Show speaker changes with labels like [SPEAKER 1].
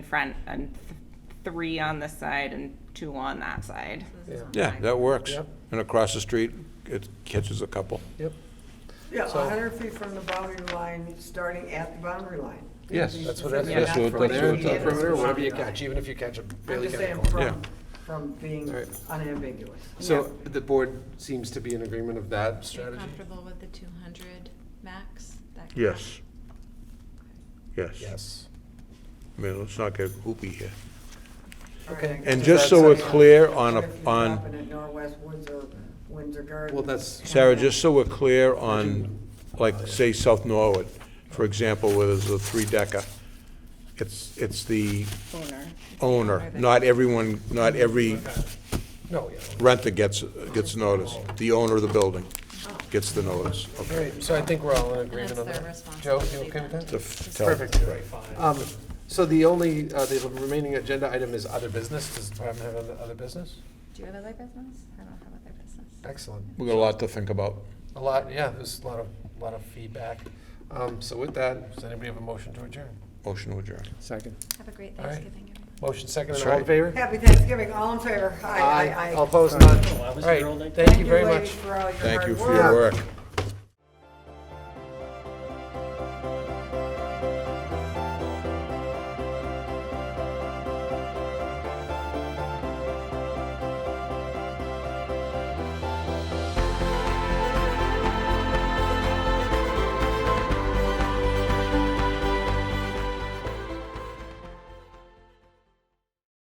[SPEAKER 1] front and th- three on this side and two on that side.
[SPEAKER 2] Yeah.
[SPEAKER 3] Yeah, that works.
[SPEAKER 2] Yep.
[SPEAKER 3] And across the street, it catches a couple.
[SPEAKER 2] Yep,
[SPEAKER 4] Yeah,
[SPEAKER 2] So-
[SPEAKER 4] hundred feet from the boundary line, starting at the boundary line.
[SPEAKER 3] Yes.
[SPEAKER 2] that's what
[SPEAKER 4] Yeah,
[SPEAKER 2] that's.
[SPEAKER 3] that's what-
[SPEAKER 2] from
[SPEAKER 3] that's
[SPEAKER 2] there
[SPEAKER 3] what
[SPEAKER 2] to
[SPEAKER 3] it
[SPEAKER 2] the
[SPEAKER 3] is.
[SPEAKER 2] Perimeter, whatever you catch, even if you catch a
[SPEAKER 4] I'm
[SPEAKER 2] Bailey
[SPEAKER 4] just saying
[SPEAKER 2] County
[SPEAKER 3] Yeah.
[SPEAKER 4] from, from being
[SPEAKER 2] Right.
[SPEAKER 4] unambiguous.
[SPEAKER 2] So the board seems to be in agreement of that strategy?
[SPEAKER 5] Comfortable with the two hundred max? That kind of-
[SPEAKER 3] Yes. Yes.
[SPEAKER 2] Yes.
[SPEAKER 3] I mean, let's not get hoopy here.
[SPEAKER 4] All right,
[SPEAKER 2] Okay.
[SPEAKER 4] I guess
[SPEAKER 3] And
[SPEAKER 2] So
[SPEAKER 3] just so we're
[SPEAKER 2] that's-
[SPEAKER 3] clear on,
[SPEAKER 4] if
[SPEAKER 3] a-
[SPEAKER 4] you
[SPEAKER 3] on,
[SPEAKER 4] happen at Northwest Woods or Windsor Gardens.
[SPEAKER 2] Well,
[SPEAKER 4] uh,
[SPEAKER 2] that's-
[SPEAKER 3] Sarah, just so we're clear on, like, say, South Norwood, for example, where there's a three-decker, it's, it's the
[SPEAKER 1] Owner.
[SPEAKER 3] owner, not everyone, not every
[SPEAKER 2] No, yeah.
[SPEAKER 3] renter gets, gets notice. The owner of the building gets the notice.
[SPEAKER 2] All right, so I think we're all in
[SPEAKER 5] And it's
[SPEAKER 2] agreement on
[SPEAKER 5] their
[SPEAKER 2] that. Joe,
[SPEAKER 5] responsibility
[SPEAKER 2] you okay with
[SPEAKER 5] then
[SPEAKER 2] that?
[SPEAKER 3] To f- tell-
[SPEAKER 2] Perfect. Um, So the only, uh, the remaining agenda item is other business. Does the department have other- other business?
[SPEAKER 5] Do you have other business? I don't have other business.
[SPEAKER 2] Excellent.
[SPEAKER 3] We got a lot to think about.
[SPEAKER 2] A lot, yeah, there's a lot of, lot of feedback. Um, So with that, does anybody have a motion to adjourn?
[SPEAKER 3] Motion to adjourn.
[SPEAKER 2] Second.
[SPEAKER 5] Have a great
[SPEAKER 2] All right.
[SPEAKER 5] Thanksgiving, everyone.
[SPEAKER 2] Motion second,
[SPEAKER 3] That's
[SPEAKER 2] and all in
[SPEAKER 3] right.
[SPEAKER 2] favor?
[SPEAKER 4] Happy Thanksgiving, all in favor? Aye, aye, aye.
[SPEAKER 2] All opposed, none.
[SPEAKER 6] Well, I
[SPEAKER 2] All
[SPEAKER 6] was here all
[SPEAKER 2] right,
[SPEAKER 6] day.
[SPEAKER 2] thank you very much.
[SPEAKER 4] ladies, for all your
[SPEAKER 3] Thank you
[SPEAKER 4] hard
[SPEAKER 3] for your work.